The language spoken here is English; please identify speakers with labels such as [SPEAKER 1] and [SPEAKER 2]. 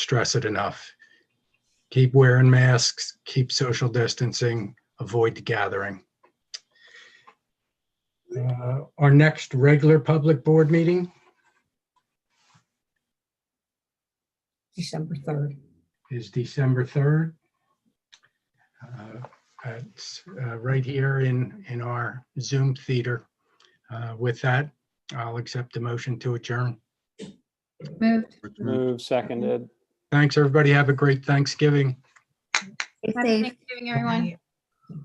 [SPEAKER 1] stress it enough. Keep wearing masks, keep social distancing, avoid the gathering. Uh, Our next regular public board meeting
[SPEAKER 2] December 3rd.
[SPEAKER 1] is December 3rd. Uh, It's uh, right here in, in our Zoom theater. Uh, With that, I'll accept the motion to adjourn.
[SPEAKER 2] Moved.
[SPEAKER 3] Move seconded.
[SPEAKER 1] Thanks, everybody. Have a great Thanksgiving.
[SPEAKER 2] Stay
[SPEAKER 4] Happy
[SPEAKER 2] safe.
[SPEAKER 4] Thanksgiving, everyone.